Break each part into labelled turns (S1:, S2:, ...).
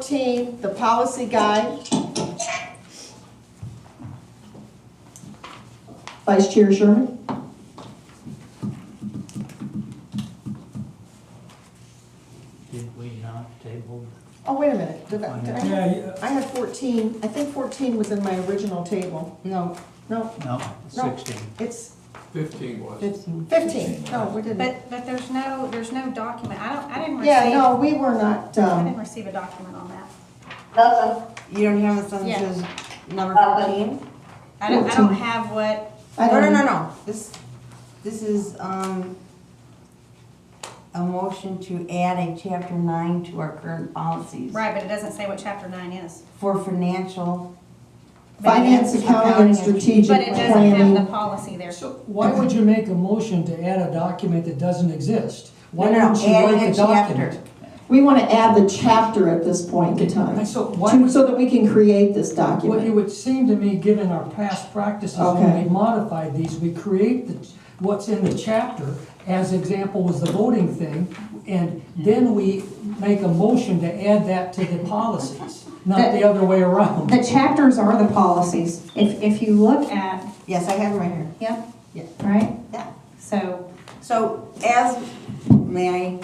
S1: 14, the policy guide.
S2: Vice Chair Sherman?
S3: Did we not table?
S1: Oh, wait a minute, did I, did I have-
S4: Yeah, yeah.
S1: I had 14, I think 14 was in my original table. No. No,
S3: No,
S1: No.
S3: sixteen.
S1: it's
S4: Fifteen was.
S1: 15, no, we didn't.
S5: But, but there's no, there's no document, I don't, I didn't
S1: Yeah, no,
S5: receive,
S1: we were not,
S5: I
S1: um,
S5: didn't receive a document on that.
S6: Uh,
S7: You don't have a sentence
S5: Yeah.
S7: as number fourteen?
S6: um,
S5: I don't, I don't have what,
S1: I
S7: No, no,
S1: don't,
S7: no, no, this, this is, um, a motion to add a chapter nine to our current policies.
S5: right, but it doesn't say what chapter nine is.
S7: For financial,
S1: finance, accounting, and strategic
S5: But it doesn't have the
S1: planning.
S5: policy there.
S4: So why would you make a motion to add a document that doesn't exist?
S7: no,
S4: Why
S7: no,
S4: don't
S7: no,
S4: you
S7: adding
S4: write
S7: a
S4: the document?
S7: chapter.
S2: We want to add the chapter at this point in time,
S4: And so
S2: to-
S4: why,
S2: so that we can create this
S4: what it
S2: document.
S4: would seem to me, given our past practices,
S2: Okay.
S4: when we modify these, we create the, what's in the chapter, as example was the voting thing, and then we make a motion to add that to the policies, not the other way around.
S8: The chapters are the policies. If, if you look at,
S7: yes, I have it right here,
S8: yeah,
S7: Yeah.
S8: right?
S7: yeah.
S8: So,
S7: So as, may I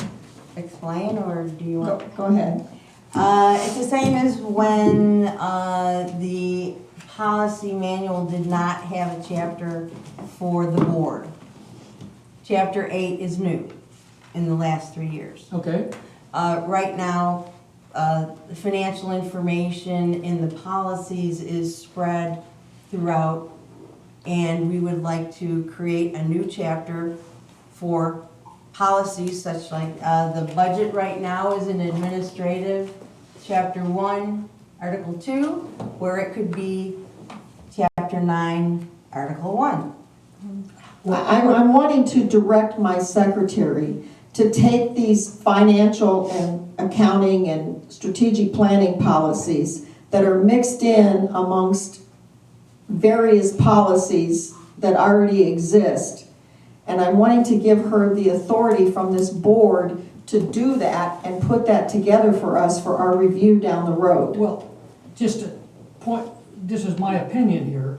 S7: explain, or do you
S1: Go
S7: want?
S1: go ahead.
S7: Uh, it's the same as when, uh, the policy manual did not have a chapter for the board. Chapter eight is new in the last three years.
S4: Okay,
S7: Uh, right now, uh, the financial information in the policies is spread throughout, and we would like to create a new chapter for policies such like, uh, the budget right now is in administrative, chapter one, article two, where it could be chapter nine, article one.
S2: I- I'm, I'm wanting to direct my secretary to take these financial and accounting and strategic planning policies that are mixed in amongst various policies that already exist. And I'm wanting to give her the authority from this board to do that and put that together for us for our review down the road.
S4: Well, just a point, this is my opinion here.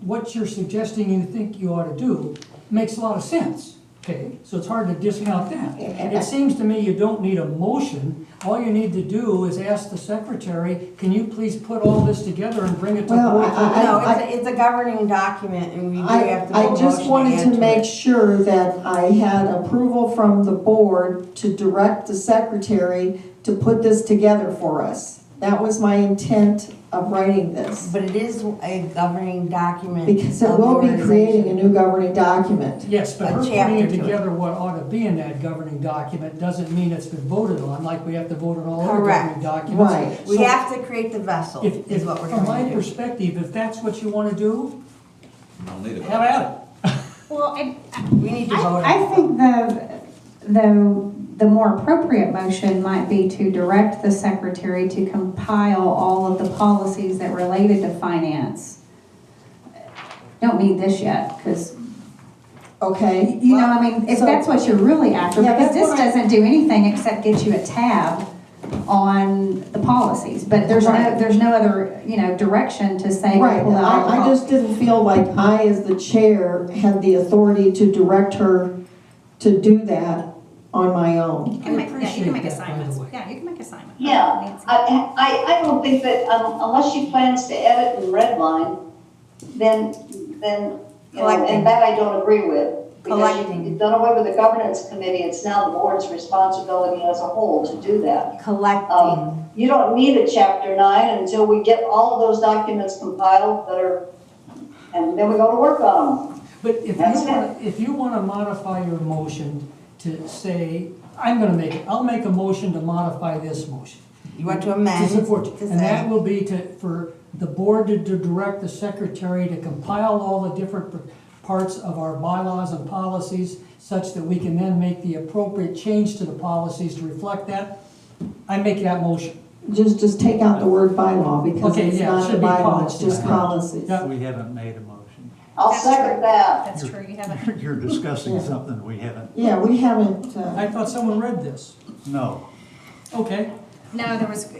S4: What you're suggesting you think you ought to do makes a lot of sense, okay? So it's hard to discount that. It seems to me you don't need a motion. All you need to do is ask the secretary, can you please put all this together and bring it to
S2: Well,
S4: board?
S2: I-
S7: No, it's, a- it's a governing document, and we do
S2: I,
S7: have to make a
S2: I just
S7: motion
S2: wanted
S7: add
S2: to
S7: it.
S2: make sure that I had approval from the board to direct the secretary to put this together for us. That was my intent of writing this,
S7: But it is a governing document.
S2: because it
S7: of the
S2: will be creating a
S7: organization.
S2: new governing document.
S4: Yes, but
S7: a
S4: her
S7: chapter
S4: putting
S7: to it.
S4: together what ought to be in that governing document doesn't mean it's been voted on, like we have to vote on all other
S7: Correct.
S4: governing documents.
S2: Right.
S7: We
S4: So-
S7: have to create the vessel,
S4: If,
S7: is
S4: if,
S7: what we're
S4: from my
S7: trying to do.
S4: perspective, if that's what you wanna do,
S9: I'll need it.
S4: have at
S5: Well, and
S7: We need to vote.
S8: I, I think the, the, the more appropriate motion might be to direct the secretary to compile all of the policies that related to finance. Don't need this yet, because,
S2: Okay,
S8: you know, I mean, if
S2: So-
S8: that's what you're really after,
S2: Yeah,
S8: because
S2: that's
S8: this
S2: what I-
S8: doesn't do anything except get you a tab on the policies, but there's no,
S2: Right.
S8: there's no other, you know, direction to say.
S2: right,
S8: pull out all the
S2: I, I
S8: pol-
S2: just didn't feel like I, as the chair, had the authority to direct her to do that on my own.
S5: you can make, yeah, you
S4: appreciate
S5: can make
S4: that, by the
S5: assignments,
S4: way.
S5: yeah, you can make assignments.
S6: Yeah,
S5: Nancy.
S6: I, I, I don't think that, um, unless she plans to edit and redline, then, then, you know,
S7: Collecting.
S6: and that I don't agree with. Because you-
S7: Collecting.
S6: you've done away with the governance committee, it's now the board's responsibility as a whole to do that.
S7: Collecting,
S6: Um, you don't need a chapter nine until we get all of those documents compiled that are, and then we go to work on them.
S4: it. But if you
S6: That's it.
S4: wanna, if you wanna modify your motion to say, I'm gonna make it, I'll make a motion to modify this motion.
S7: you want to
S4: To
S7: amend,
S4: support,
S7: to
S4: and that
S7: say,
S4: will be to, for the board to to direct the secretary to compile all the different pr- parts of our bylaws and policies such that we can then make the appropriate change to the policies to reflect that. I make that motion.
S2: Just, just take out the word bylaw, because
S4: Okay,
S2: it's
S4: yeah, it
S2: not
S4: should
S2: a
S4: be
S2: bylaw, it's
S4: policy.
S2: just policies.
S4: Yeah.
S3: We haven't made a motion.
S6: I'll
S5: That's true.
S6: second that.
S5: That's true, you haven't.
S3: You're- You're discussing something we haven't,
S2: Yeah, we haven't, uh,
S4: I thought someone read this.
S3: no.
S4: Okay,
S8: No, there was